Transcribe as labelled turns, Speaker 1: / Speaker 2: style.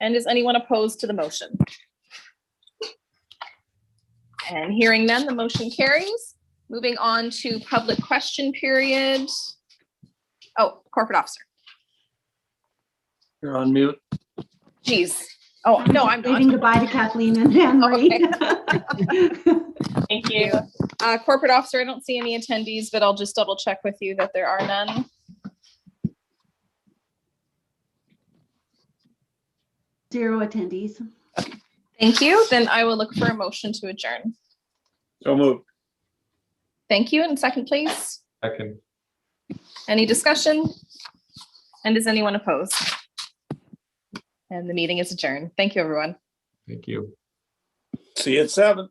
Speaker 1: And is anyone opposed to the motion? And hearing none, the motion carries. Moving on to public question period. Oh, corporate officer.
Speaker 2: You're on mute.
Speaker 1: Geez. Oh, no, I'm
Speaker 3: Waving
Speaker 1: not.
Speaker 3: goodbye to Kathleen and Anne Marie.
Speaker 1: Thank you. Uh, corporate officer, I don't see any attendees, but I'll just double check with you that there are none.
Speaker 3: Zero attendees.
Speaker 1: Thank you. Then I will look for a motion to adjourn.
Speaker 2: So moved.
Speaker 1: Thank you. And second, please.
Speaker 4: Second,
Speaker 1: Any discussion? And is anyone opposed? And the meeting is adjourned. Thank you, everyone.
Speaker 4: thank you.
Speaker 2: See you at seven.